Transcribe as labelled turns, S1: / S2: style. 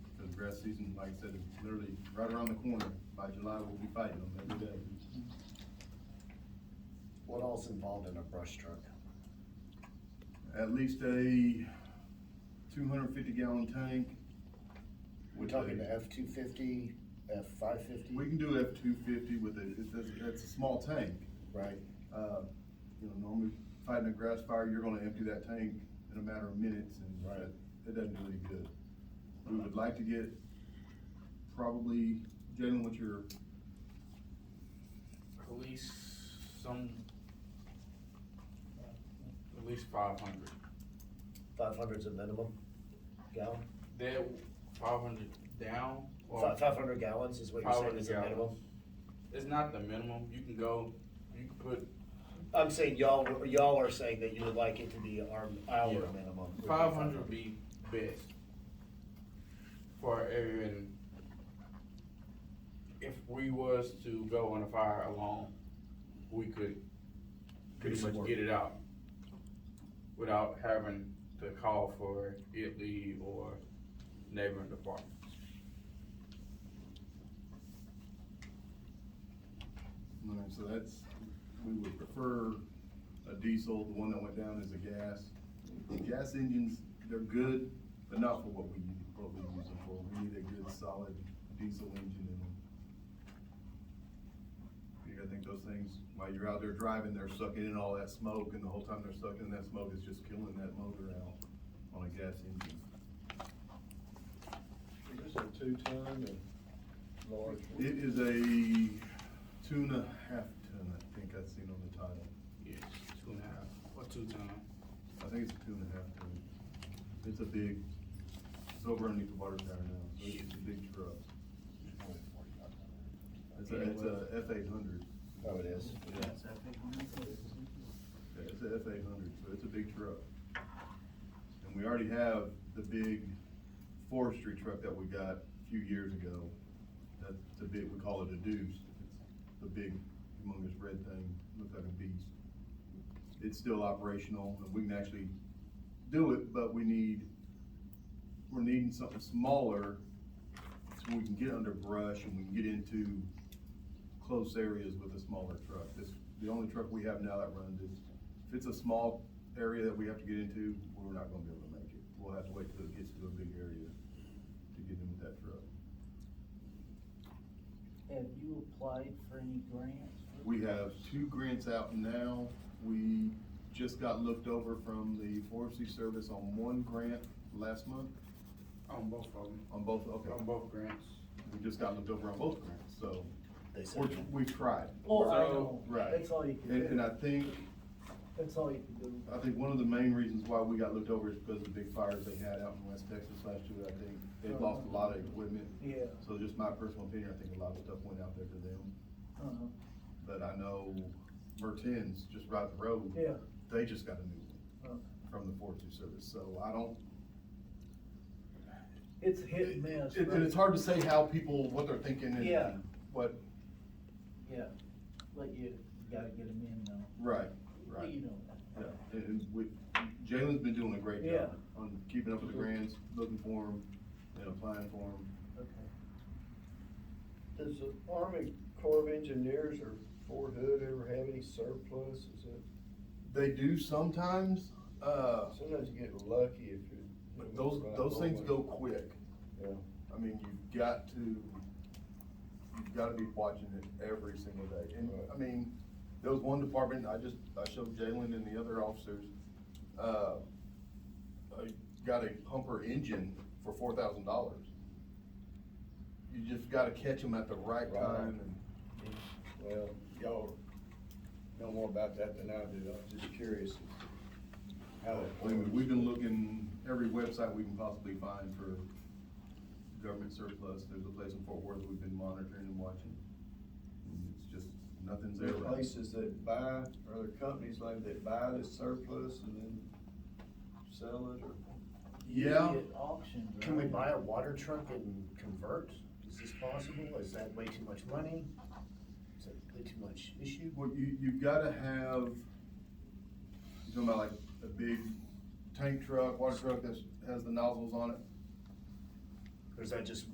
S1: grass season, like I said, is literally right around the corner. By July, we'll be fighting them every day.
S2: What all's involved in a brush truck?
S1: At least a two hundred fifty gallon tank.
S2: We're talking the F two fifty, F five fifty,
S1: We can do F two fifty with a, it- that's, that's a small tank.
S2: right?
S1: Uh, you know, normally fighting a grass fire, you're gonna empty that tank in a matter of minutes and
S2: Right.
S1: that- it doesn't do any good. We would like to get probably, Jalen, what's your,
S3: At least some, at least five hundred.
S2: Five hundred's a minimum gallon?
S3: They, five hundred down or
S2: Five, five hundred gallons is what you're
S3: five
S2: saying
S3: hundred
S2: is a minimum?
S3: gallons. It's not the minimum, you can go, you can put
S2: I'm saying y'all, y'all are saying that you would like it to be our, our
S3: Yeah.
S2: minimum. would be
S3: Five hundred would be best for our area and if we was to go on a fire alone, we could pretty
S2: Do some
S3: much
S2: work.
S3: get it out without having to call for it leave or neighboring department.
S1: all right, so that's, we would prefer a diesel, the one that went down is a gas. The Gas engines, they're good, but not for what we, what we use them for. We need a good solid diesel engine in them. You gotta think those things, while you're out there driving, they're sucking in all that smoke, and the whole time they're sucking in that smoke, it's just killing that motor out on a gas engine.
S4: Is this a two-ton or large?
S1: It is a two and a half ton, I think I've seen on the title.
S3: Yes, two and a half or two ton.
S1: I think it's a two and a half ton. It's a big, it's over underneath the water tower now, so it's a big truck. It's a, it's a F eight hundred.
S2: Oh, it is?
S1: Yeah, It's a F eight hundred, so it's a big truck. And we already have the big forestry truck that we got a few years ago. That's the big, we call it a deuce. It's the big humongous red thing, looks like a beast. It's still operational and we can actually do it, but we need, we're needing something smaller so we can get under brush and we can get into close areas with a smaller truck. This, the only truck we have now that runs is, if it's a small area that we have to get into, we're not gonna be able to make it. We'll have to wait till it gets to a big area to get in with that truck.
S5: Have you applied for any grants?
S1: We have two grants out now. We just got looked over from the forestry service on one grant last month,
S3: On both of them,
S1: on both, okay.
S3: on both grants.
S1: We just got looked over on both grants, so
S2: They
S1: we're,
S2: said,
S1: we've tried.
S5: Oh, I
S3: So,
S5: know,
S1: right.
S5: that's all you can
S1: And, and
S5: do,
S1: I think
S5: that's all you can do.
S1: I think one of the main reasons why we got looked over is because of the big fires they had out in West Texas last year, I think. They've lost a lot of equipment,
S5: Yeah,
S1: so just my personal opinion, I think a lot of stuff went out there to them.
S5: uh-huh,
S1: But I know Mertens, just right up the road,
S5: yeah,
S1: they just got a new one
S5: uh,
S1: from the Forestry Service, so I don't.
S5: it's a hit and miss,
S1: It- And it's
S5: but,
S1: hard to say how people, what they're thinking
S5: Yeah.
S1: and what,
S5: yeah, but you gotta get them in now,
S1: right, right.
S5: you know that.
S1: Yeah, and, and we, Jalen's been doing a great
S5: Yeah.
S1: job on keeping up with the grants, looking for them and applying for them.
S5: Okay.
S4: Does the Army Corps of Engineers or Fort Hood ever have any surplus? Is it,
S1: They do sometimes, uh,
S4: sometimes you get lucky if you.
S1: But those, those things go quick.
S4: Yeah.
S1: I mean, you've got to, you've gotta be watching it every single day. And, I mean, there was one department, I just, I showed Jalen and the other officers, uh, I got a pumper engine for four thousand dollars. You just gotta catch them at the right
S4: Right.
S1: time and.
S4: Well, y'all know more about that than I do. I'm just curious. How
S1: I mean,
S4: that.
S1: we've been looking every website we can possibly find for government surplus. There's a place in Fort Worth we've been monitoring and watching. And It's just, nothing's there.
S4: There are places that buy, or there are companies like that buy this surplus and then sell it or.
S5: You
S1: Yeah.
S5: get Auctioned, right?
S2: can we buy a water truck and convert? Is this possible? Is that way too much money? Is that way too much issue?
S1: Well, you, you've gotta have, you're talking about like a big tank truck, water truck that has the nozzles on it.
S2: Or is that just